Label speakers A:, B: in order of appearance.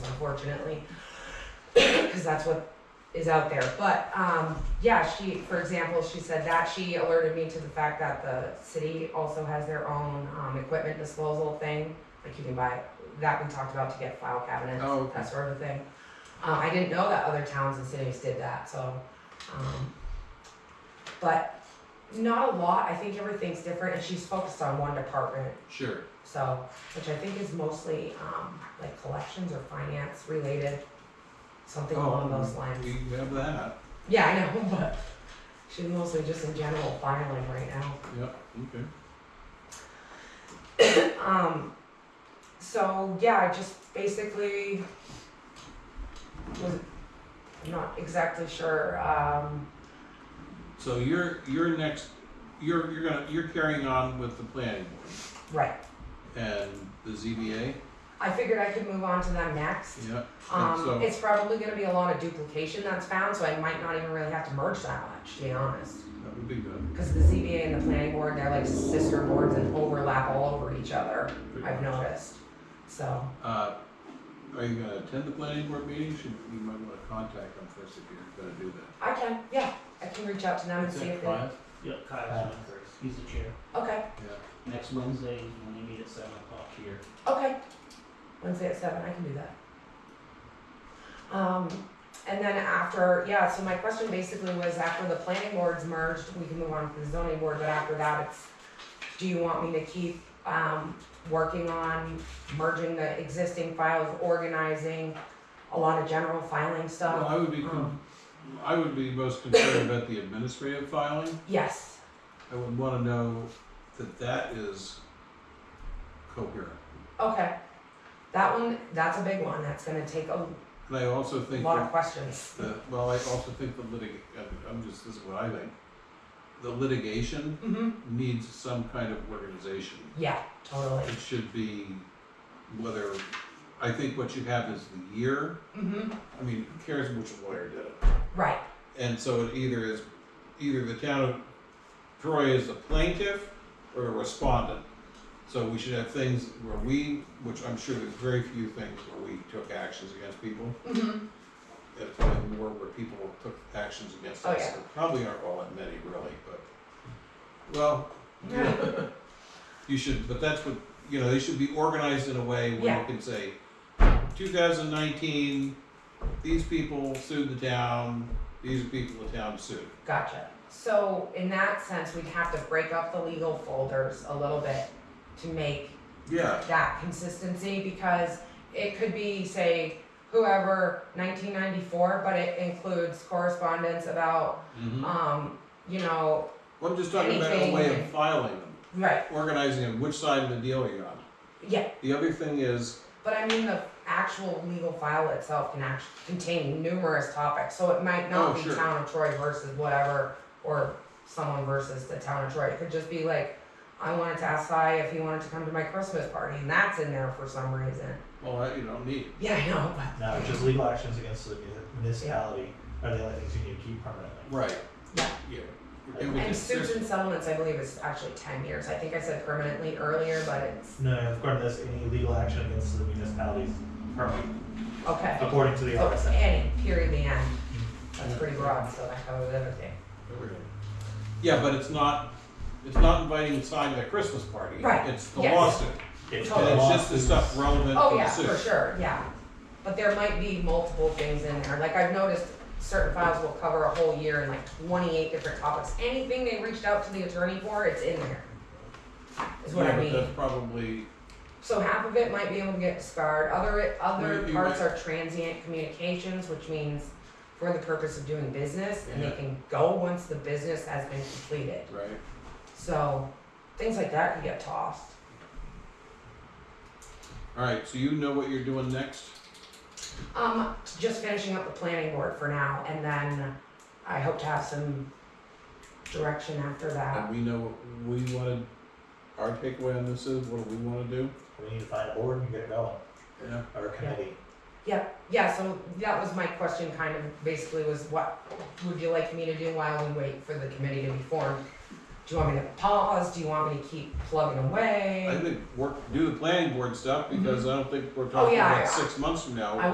A: unfortunately, because that's what is out there. But um, yeah, she, for example, she said that she alerted me to the fact that the city also has their own um, equipment disposal thing. Like you can buy that we talked about to get file cabinets,
B: Oh, okay.
A: that sort of thing. Uh, I didn't know that other towns and cities did that. So, um, but not a lot. I think everything's different, and she's focused on one department.
B: Sure.
A: So, which I think is mostly um, like collections or finance related, something along those lines.
B: Um, We have that.
A: Yeah, I know, but she's mostly just in general filing right now.
B: Yep. Okay.
A: Um, so yeah, I just basically was I'm not exactly sure. Um,
B: So you're you're next. You're you're gonna you're carrying on with the planning board
A: right,
B: and the ZBA.
A: I figured I could move on to them next.
B: Yep.
A: Um,
B: and so
A: it's probably going to be a lot of duplication that's found, so I might not even really have to merge that much, to be honest.
B: that would be good.
A: Because the ZBA and the planning board, they're like sister boards and overlap all over each other, I've noticed. So,
B: Uh, are you gonna attend the planning board meetings? You, you might want to contact them first if you're gonna do that.
A: I can, yeah, I can reach out to them and
B: Is
A: see
B: that
A: if they.
B: quiet?
C: Yeah, Kyle's on first. Uh, He's the chair.
A: Okay,
B: Yeah.
C: Next Wednesday, is when they meet at seven o'clock here.
A: okay. Wednesday at seven, I can do that. Um, and then after, yeah, so my question basically was after the planning board's merged, we can move on to the zoning board, but after that, it's, do you want me to keep, um, working on merging the existing files, organizing a lot of general filing
B: Well,
A: stuff?
B: I would be con- I would be most concerned about the administrative filing.
A: Yes,
B: I would want to know that that is coherent.
A: okay. That one, that's a big one, that's gonna take a
B: And I also think
A: lot of
B: that
A: questions.
B: the, well, I also think the litig, I'm just, this is what I think. The litigation
A: Mm-hmm.
B: needs some kind of organization.
A: Yeah, totally.
B: It should be whether, I think what you have is the year,
A: Mm-hmm.
B: I mean, who cares which lawyer did it?
A: Right.
B: And so it either is, either the town of Troy is the plaintiff or a respondent. So we should have things where we, which I'm sure there's very few things where we took actions against people.
A: Mm-hmm.
B: It's probably more where people took actions against
A: Oh,
B: us.
A: yeah.
B: There probably aren't all that many really, but, well, yeah. you should, but that's what, you know, they should be organized in a way where
A: Yeah.
B: you can say, two thousand nineteen, these people sued the town, these people the town sued.
A: Gotcha. So in that sense, we'd have to break up the legal folders a little bit to make
B: Yeah.
A: that consistency because it could be, say, whoever, 1994, but it includes correspondence about,
B: Mm-hmm.
A: um, you know,
B: Well, I'm just talking about a way of
A: Anything.
B: filing them,
A: right,
B: organizing them, which side of the deal you're on.
A: yeah.
B: The other thing is,
A: But I mean, the actual legal file itself can actually contain numerous topics, so it might
B: Oh,
A: not be
B: sure.
A: town of Troy versus whatever, or someone versus the town of Troy. It could just be like, I wanted to ask Si if he wanted to come to my Christmas party, and that's in there for some reason.
B: well, that you don't need.
A: Yeah, I know, but
D: No, it's just legal actions against the municipality are the only things you need to keep permanently.
B: Right.
A: Yeah.
B: Yeah. And we
A: and
B: just- there's-
A: suits and settlements, I believe, is actually ten years. I think I said permanently earlier, but it's
D: No, according to this, any legal action against the municipalities permanent,
A: okay.
D: according to the
A: So
D: RSA. Mm-hmm.
A: any period, the end. That's pretty broad, so that covers everything.
B: Yeah, but it's not, it's not inviting the side to the Christmas party.
A: Right,
B: It's the
A: yes.
B: lawsuit.
D: It's
B: And it's just the
D: lawsuits.
B: stuff relevant
A: Oh,
B: to
A: yeah,
B: the suit.
A: for sure, yeah. But there might be multiple things in there, like I've noticed certain files will cover a whole year and like twenty-eight different topics. Anything they reached out to the attorney for, it's in there. Is what
B: Yeah,
A: I
B: but
A: mean.
B: that's probably,
A: So half of it might be able to get discarded, other, other
B: Well, you
A: parts
B: might-
A: are transient communications, which means for the purpose of doing business, and
B: Yeah.
A: they can go once the business has been completed.
B: right?
A: So, things like that can get tossed.
B: All right, so you know what you're doing next?
A: Um, just finishing up the planning board for now, and then I hope to have some direction after
B: And
A: that.
B: we know what we wanted, our takeaway on this is, what do we want to do?
D: We need to find a board and get it going,
B: Yeah.
D: or a committee.
A: Yeah, yeah, so that was my question, kind of basically was what would you like me to do while we wait for the committee to be formed? Do you want me to pause? Do you want me to keep plugging
B: I
A: away?
B: think work, do the planning board stuff because I don't think we're
A: Oh,
B: talking
A: yeah,
B: about
A: I-
B: six months from now.
A: I